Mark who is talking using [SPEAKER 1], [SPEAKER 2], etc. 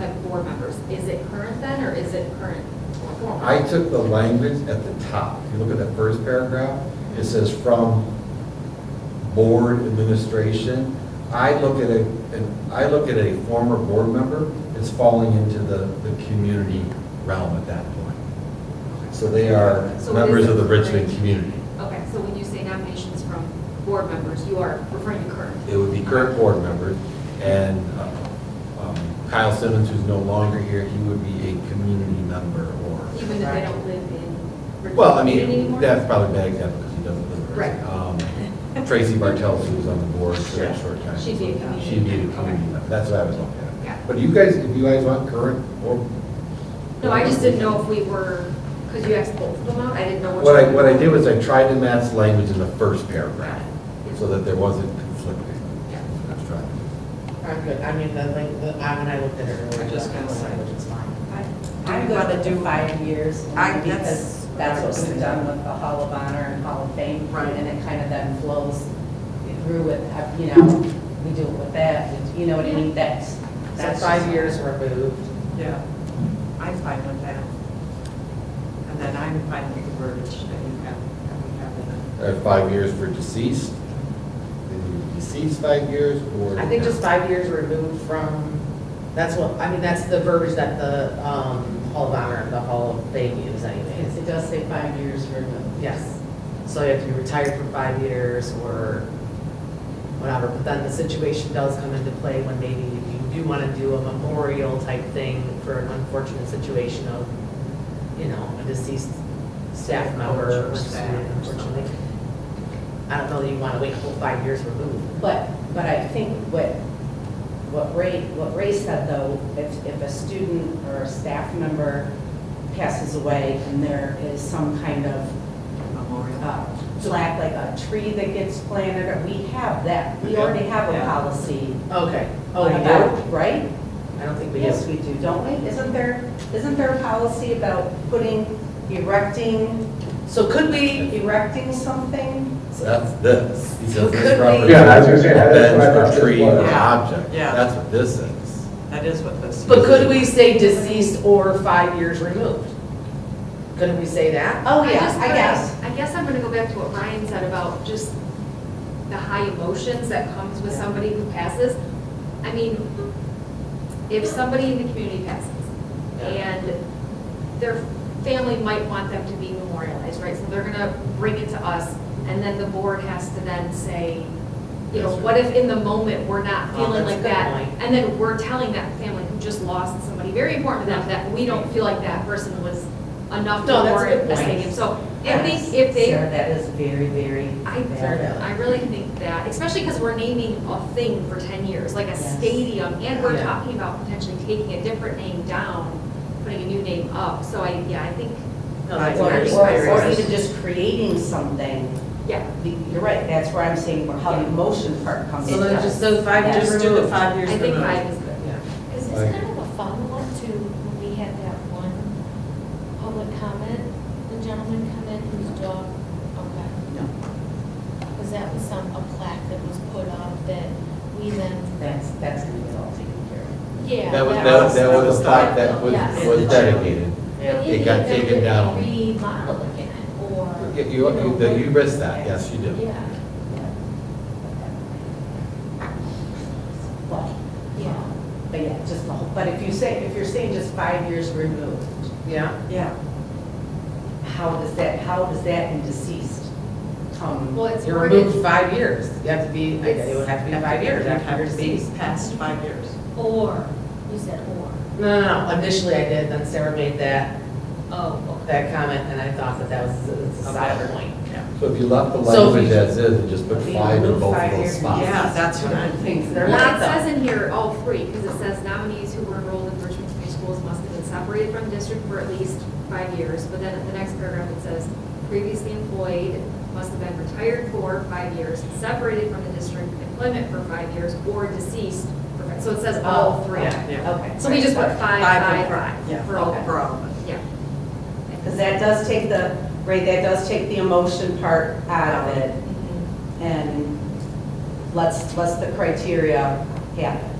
[SPEAKER 1] of board members. Is it current then, or is it current or former?
[SPEAKER 2] I took the language at the top, if you look at the first paragraph, it says from board administration. I look at a, an- I look at a former board member, it's falling into the, the community realm at that point. So they are
[SPEAKER 1] So it
[SPEAKER 2] members of the
[SPEAKER 1] isn't
[SPEAKER 2] Richmond
[SPEAKER 1] current.
[SPEAKER 2] community.
[SPEAKER 1] Okay, so when you say nominations from board members, you are referring to current?
[SPEAKER 2] It would be current board members, and uh, um, Kyle Simmons, who's no longer here, he would be a community member or.
[SPEAKER 1] Even if they don't live in Richmond
[SPEAKER 2] Well, I mean,
[SPEAKER 1] anymore?
[SPEAKER 2] that's probably a bad example because he doesn't live there.
[SPEAKER 1] Right.
[SPEAKER 2] Um, Tracy Bartels, who was on the board for a short time.
[SPEAKER 1] She'd be a community
[SPEAKER 2] She'd be a
[SPEAKER 1] member, okay.
[SPEAKER 2] community member. That's what I was looking at.
[SPEAKER 1] Yeah.
[SPEAKER 2] But you guys, if you guys want current or.
[SPEAKER 1] No, I just didn't know if we were, because you asked both of them out, I didn't know which.
[SPEAKER 2] What I,
[SPEAKER 1] one.
[SPEAKER 2] what I did was I tried to match language in the first
[SPEAKER 1] Got
[SPEAKER 2] paragraph
[SPEAKER 1] it.
[SPEAKER 2] so that there wasn't conflicting.
[SPEAKER 1] Yeah.
[SPEAKER 2] I was trying to-
[SPEAKER 3] I'm good, I mean, the, like, the, I, when I looked at it earlier.
[SPEAKER 4] I just kinda
[SPEAKER 3] the
[SPEAKER 4] like-
[SPEAKER 3] language is fine.
[SPEAKER 5] Do
[SPEAKER 4] I'm
[SPEAKER 5] you
[SPEAKER 4] good.
[SPEAKER 5] want to do five years?
[SPEAKER 4] I- that's-
[SPEAKER 5] Because that's what we've done with the Hall of Honor and Hall of Fame.
[SPEAKER 4] Right.
[SPEAKER 5] And it kind of then flows through with, you know, we do it with that, you know what I mean? That's,
[SPEAKER 3] So
[SPEAKER 5] that's.
[SPEAKER 3] five years removed.
[SPEAKER 4] Yeah, I'm fine with that. And then I'm fine with the verbiage that you have, that we have in it.
[SPEAKER 2] Uh, Five years for deceased, then you deceased five years or.
[SPEAKER 3] I think just five years removed from, that's what, I mean, that's the verbiage that the, um, Hall of Honor, the Hall of Fame use anyways.
[SPEAKER 5] It does say five years removed.
[SPEAKER 3] Yes. So you have to be retired for five years or whatever, but then the situation does come into play when maybe you do want to do a memorial type thing for an unfortunate situation of, you know, a deceased staff member or
[SPEAKER 4] Or staff
[SPEAKER 3] student
[SPEAKER 4] or
[SPEAKER 3] or something. I don't know that you want to wait a whole five years removed.
[SPEAKER 5] But, but I think what, what Ray, what Ray said though, if, if a student or a staff member passes away and there is some kind of
[SPEAKER 4] Memorial.
[SPEAKER 5] uh, black, like a tree that gets planted, or we have that, we
[SPEAKER 2] Yeah.
[SPEAKER 5] already have a
[SPEAKER 4] Yeah.
[SPEAKER 5] policy.
[SPEAKER 3] Okay. Oh, you
[SPEAKER 5] about-
[SPEAKER 3] do?
[SPEAKER 5] Right?
[SPEAKER 3] I don't think we do.
[SPEAKER 5] Yes, we do, don't we? Isn't there, isn't there a policy about putting, erecting,
[SPEAKER 3] So could we,
[SPEAKER 5] erecting something?
[SPEAKER 2] That's this. He says this
[SPEAKER 3] Could we-
[SPEAKER 2] property.
[SPEAKER 6] Yeah, I was gonna say,
[SPEAKER 2] is
[SPEAKER 6] that's
[SPEAKER 2] a
[SPEAKER 6] what I
[SPEAKER 2] bench,
[SPEAKER 6] thought
[SPEAKER 2] a
[SPEAKER 6] this
[SPEAKER 2] tree,
[SPEAKER 6] was.
[SPEAKER 2] an
[SPEAKER 4] Yeah.
[SPEAKER 2] object.
[SPEAKER 4] Yeah.
[SPEAKER 2] That's what this is.
[SPEAKER 4] That is what this.
[SPEAKER 3] but could we say deceased or five years removed? Couldn't we say that?
[SPEAKER 5] Oh, yeah,
[SPEAKER 1] just
[SPEAKER 5] I
[SPEAKER 1] kinda-
[SPEAKER 5] guess.
[SPEAKER 1] I guess I'm gonna go back to what Ryan said about just the high emotions that comes with somebody who passes. I mean, if somebody in the community passes and their family might want them to be memorialized, right? So they're gonna bring it to us and then the board has to then say, you know,
[SPEAKER 2] Yes, sir.
[SPEAKER 1] what if in the moment we're not
[SPEAKER 3] Oh,
[SPEAKER 1] feeling
[SPEAKER 3] that's a
[SPEAKER 1] like
[SPEAKER 3] good
[SPEAKER 1] that?
[SPEAKER 3] point.
[SPEAKER 1] And then we're telling that family who just lost somebody very important to them that we don't feel like that person was enough to
[SPEAKER 3] No, that's a
[SPEAKER 1] warrant
[SPEAKER 3] good
[SPEAKER 1] this thing.
[SPEAKER 3] point.
[SPEAKER 1] And so I think if they,
[SPEAKER 5] Sarah, that is very, very
[SPEAKER 1] I,
[SPEAKER 5] bad.
[SPEAKER 3] Fair.
[SPEAKER 1] I really think that, especially because we're naming a thing for ten years, like a
[SPEAKER 5] Yes.
[SPEAKER 1] stadium, and we're
[SPEAKER 3] Yeah.
[SPEAKER 1] talking about potentially taking a different name down, putting a new name up, so I, yeah, I think,
[SPEAKER 3] No, that's
[SPEAKER 5] Or,
[SPEAKER 3] very
[SPEAKER 5] or or
[SPEAKER 3] serious.
[SPEAKER 5] even just creating something,
[SPEAKER 1] yeah.
[SPEAKER 5] you're right, that's where I'm saying where how the emotion part comes in.
[SPEAKER 3] So then just the five
[SPEAKER 5] Yeah.
[SPEAKER 3] years
[SPEAKER 5] Just
[SPEAKER 3] removed.
[SPEAKER 5] do the
[SPEAKER 3] five
[SPEAKER 1] I think five is good.
[SPEAKER 7] Is
[SPEAKER 2] Right.
[SPEAKER 7] this kind of a follow-up to when we had that one public comment, the gentleman come in whose dog, okay?
[SPEAKER 5] No.
[SPEAKER 7] Because that was some, a plaque that was put up that we then,
[SPEAKER 5] That's, that's gonna get all taken care of.
[SPEAKER 7] yeah.
[SPEAKER 2] That was, that was, that
[SPEAKER 4] was-
[SPEAKER 2] was a plaque that was,
[SPEAKER 7] Yes.
[SPEAKER 2] was dedicated.
[SPEAKER 7] But
[SPEAKER 2] It
[SPEAKER 7] in the
[SPEAKER 2] got
[SPEAKER 7] event that
[SPEAKER 2] taken
[SPEAKER 7] they
[SPEAKER 2] down.
[SPEAKER 7] Remodel again, or.
[SPEAKER 2] You, you,
[SPEAKER 7] know,
[SPEAKER 2] that you risked that, yes, you do.
[SPEAKER 7] Yeah,
[SPEAKER 5] Well,
[SPEAKER 7] yeah.
[SPEAKER 5] but yeah, just the whole, but if you say, if you're saying just five years removed,
[SPEAKER 3] Yeah,
[SPEAKER 4] Yeah,
[SPEAKER 5] how does that, how does that in deceased come?
[SPEAKER 1] Well, it's
[SPEAKER 3] you're
[SPEAKER 1] worded,
[SPEAKER 3] removed five years. You have to be, I guess it would have to be five years after you're
[SPEAKER 4] have to be
[SPEAKER 3] deceased.
[SPEAKER 4] past five years.
[SPEAKER 7] or, you said or,
[SPEAKER 3] No, no, no, initially I did, then Sarah made that,
[SPEAKER 7] oh, okay.
[SPEAKER 3] that comment, and I thought that that was a- it's a side point.
[SPEAKER 2] So if you left the
[SPEAKER 3] So if you
[SPEAKER 2] language as is and just put
[SPEAKER 5] Leave
[SPEAKER 2] five in
[SPEAKER 5] remove
[SPEAKER 2] both
[SPEAKER 5] five
[SPEAKER 2] of those
[SPEAKER 5] years,
[SPEAKER 2] spots.
[SPEAKER 4] Yeah, that's what I'm thinking.
[SPEAKER 3] They're
[SPEAKER 1] well,
[SPEAKER 3] not
[SPEAKER 1] it
[SPEAKER 3] though.
[SPEAKER 1] says in here all three, because it says nominees who were enrolled in Richmond Community Schools must have been separated from district for at least five years, but then in the next paragraph it says previously employed must have been retired for five years, separated from the district employment for five years, or deceased for five, so it says all
[SPEAKER 5] Oh,
[SPEAKER 1] three.
[SPEAKER 3] yeah,
[SPEAKER 4] yeah.
[SPEAKER 5] Okay.
[SPEAKER 1] So we just put
[SPEAKER 5] Sorry.
[SPEAKER 1] five,
[SPEAKER 4] Five
[SPEAKER 1] five,
[SPEAKER 4] and five.
[SPEAKER 1] five for all of them,
[SPEAKER 4] For all of it.
[SPEAKER 1] yeah.
[SPEAKER 5] Because that does take the, right, that does take the emotion part
[SPEAKER 1] Mm-hmm.
[SPEAKER 5] out of it. And let's, let's the criteria happen.